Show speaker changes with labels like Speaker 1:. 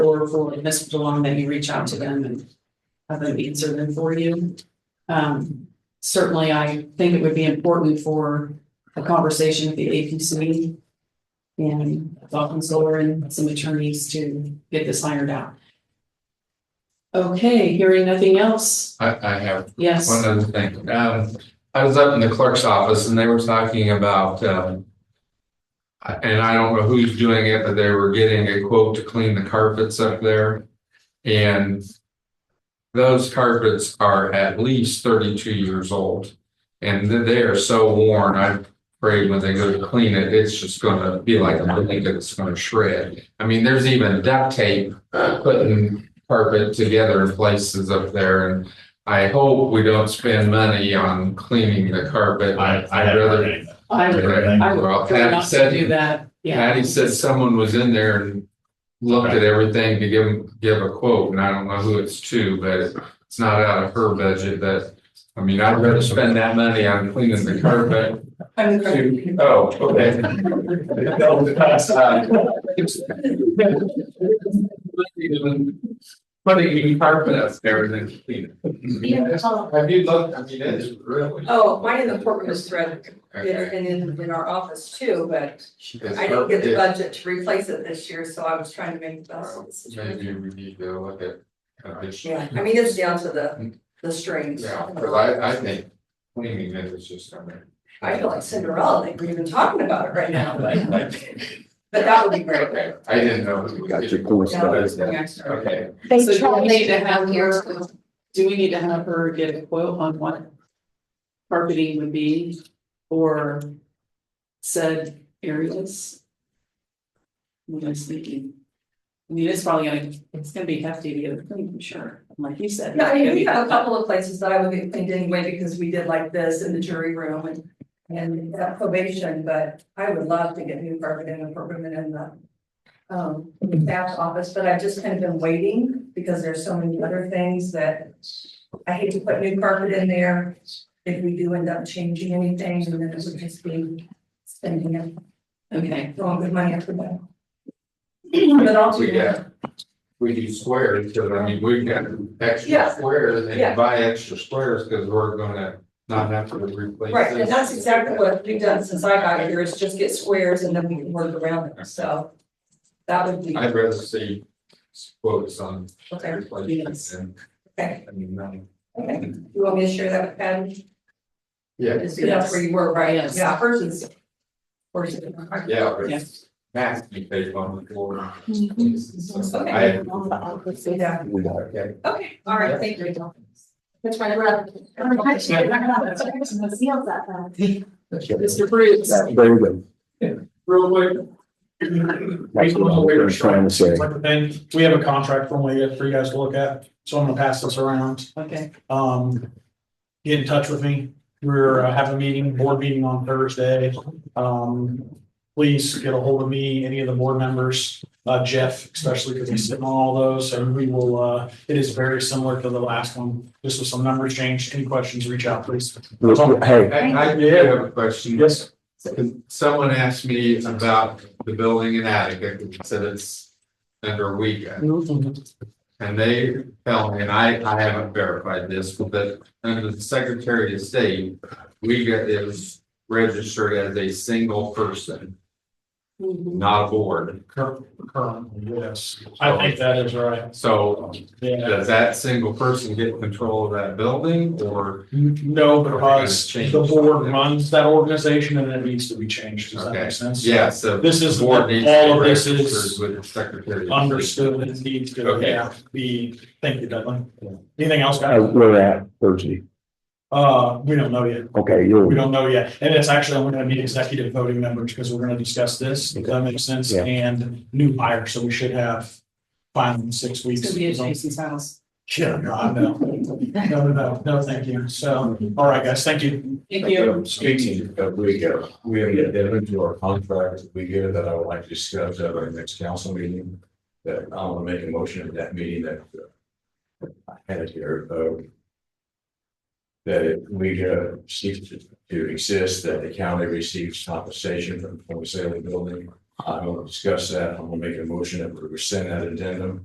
Speaker 1: or for Ms. DeLong, that you reach out to them and have them answer them for you. Um, certainly, I think it would be important for a conversation with the APC and Falcon Solar and some attorneys to get this ironed out. Okay, hearing nothing else,
Speaker 2: I, I have
Speaker 1: yes.
Speaker 2: one other thing. Um, I was up in the clerk's office and they were talking about, um, I- and I don't know who's doing it, but they were getting a quote to clean the carpets up there. And those carpets are at least thirty-two years old. And th- they are so worn, I'm afraid when they go to clean it, it's just gonna be like a blanket that's gonna shred. I mean, there's even duct tape putting carpet together in places up there and I hope we don't spend money on cleaning the carpet.
Speaker 3: I, I
Speaker 2: I'd
Speaker 3: haven't
Speaker 2: rather-
Speaker 3: heard anything.
Speaker 1: I would, I would
Speaker 2: Well,
Speaker 1: prefer
Speaker 2: Patty
Speaker 1: not to do
Speaker 2: said,
Speaker 1: that, yeah.
Speaker 2: Patty said someone was in there and looked at everything to give, give a quote, and I don't know who it's to, but it's not out of her budget that, I mean, I'd rather spend that money on cleaning the carpet.
Speaker 1: I'm
Speaker 2: to- Oh, okay. Putting carpet up there and then clean it. Have you looked, I mean, it's really.
Speaker 4: Oh, mine in the corporate was threaded, and in, in our office too, but I didn't get the budget to replace it this year, so I was trying to make the best of the situation.
Speaker 2: Maybe we need to look at. condition.
Speaker 4: Yeah, I mean, it's down to the, the strings.
Speaker 2: Yeah, cause I, I think cleaning it is just, I mean.
Speaker 4: I feel like Cinderella, like we're even talking about it right now, but, but that would be great.
Speaker 2: Okay, I didn't know. we
Speaker 5: Got your cool stuff.
Speaker 2: Okay,
Speaker 1: So
Speaker 6: They
Speaker 1: do we
Speaker 6: tried
Speaker 1: need
Speaker 6: to
Speaker 1: to have
Speaker 6: have
Speaker 1: her,
Speaker 6: years.
Speaker 1: do we need to have her get a quote on what carpeting would be for said areas? What I was thinking. I mean, it's probably gonna, it's gonna be hefty to get it cleaned, I'm sure, like you said.
Speaker 4: Yeah, I mean, we
Speaker 1: it's gonna
Speaker 4: have
Speaker 1: be-
Speaker 4: a couple of places that I would get cleaned anyway, because we did like this in the jury room and. And that probation, but I would love to get new carpet in the program and in the. Um, staff's office, but I've just kind of been waiting, because there's so many other things that. I hate to put new carpet in there, if we do end up changing anything, and then it would just be spending it,
Speaker 1: Okay,
Speaker 4: throwing good money after that. But I'll do
Speaker 2: we
Speaker 4: that.
Speaker 2: got, we do squares, cause I mean, we've got extra
Speaker 4: Yeah.
Speaker 2: squares, and you
Speaker 4: Yeah.
Speaker 2: buy extra squares, cause we're gonna not have to replace.
Speaker 4: Right, and
Speaker 2: this.
Speaker 4: that's exactly what we've done since I got here, is just get squares and then we can work around them, so. That would be,
Speaker 2: I'd rather see quotes on
Speaker 4: okay,
Speaker 2: replacements and,
Speaker 4: okay,
Speaker 2: I mean, um,
Speaker 4: okay, you want me to share that with Patty?
Speaker 2: yeah,
Speaker 4: So That's where you were, right,
Speaker 1: Yes.
Speaker 4: yeah, hers is. hers is-
Speaker 2: yeah, but
Speaker 1: Yeah.
Speaker 2: it's nasty tape on the floor. So
Speaker 4: Okay,
Speaker 2: I,
Speaker 4: yeah,
Speaker 5: We got it.
Speaker 2: okay.
Speaker 4: okay, all right, thank you.
Speaker 6: That's right, we're up.
Speaker 5: That's right.
Speaker 1: Mr. Bruce,
Speaker 5: That- There we go.
Speaker 7: Real quick.
Speaker 5: That's what I was trying to say.
Speaker 7: Like the thing, we have a contract from Leah for you guys to look at, so I'm gonna pass this around.
Speaker 1: okay,
Speaker 7: Um, get in touch with me. We're uh, having a meeting, board meeting on Thursday. Um, please get a hold of me, any of the board members, uh, Jeff especially, because he's sitting on all those, and we will, uh, it is very similar to the last one. Just with some numbers changed. Any questions, reach out, please.
Speaker 5: Look, look, Hey,
Speaker 2: I, I do have a question.
Speaker 7: Yes.
Speaker 2: Someone asked me about the building in Attica, and said it's under WECA, and they tell me, and I, I haven't verified this, but under the Secretary of State, WECA is registered as a single person, not a board.
Speaker 7: Cur- Currently, yes. I think that is right.
Speaker 2: So
Speaker 7: Yeah.
Speaker 2: does that single person get control of that building, or?
Speaker 7: No, because
Speaker 2: Change.
Speaker 7: the board runs that organization and it needs to be changed. Does that
Speaker 2: Okay.
Speaker 7: make sense?
Speaker 2: Yeah, so
Speaker 7: This is, all
Speaker 2: board needs to be
Speaker 7: of this
Speaker 2: registered
Speaker 7: is
Speaker 2: With the Secretary. of State.
Speaker 7: understood and needs to,
Speaker 2: Okay.
Speaker 7: yeah, be, thank you, Dudley. Anything else,
Speaker 5: uh,
Speaker 7: guys?
Speaker 5: we're at Thursday.
Speaker 7: Uh, we don't know yet.
Speaker 5: Okay,
Speaker 7: We
Speaker 5: you're,
Speaker 7: don't know yet. And it's actually, we're gonna need executive voting members because we're gonna discuss this, if that makes sense,
Speaker 5: Yeah.
Speaker 7: and new hire, so we should have final in six
Speaker 1: it's
Speaker 7: weeks.
Speaker 1: gonna be at Jason's house,
Speaker 7: Yeah, God, no. No, no, no, no, thank you. So, all right, guys, thank you.
Speaker 1: thank you.
Speaker 8: Speaking of WECA, we have an addendum to our contract with WECA that I would like to discuss at our next council meeting. That I want to make a motion at that meeting that uh, I had it here, uh, That WECA ceases to exist, that the county receives compensation from the sale of the building. I'm going to discuss that. I'm going to make a motion that we rescind that addendum.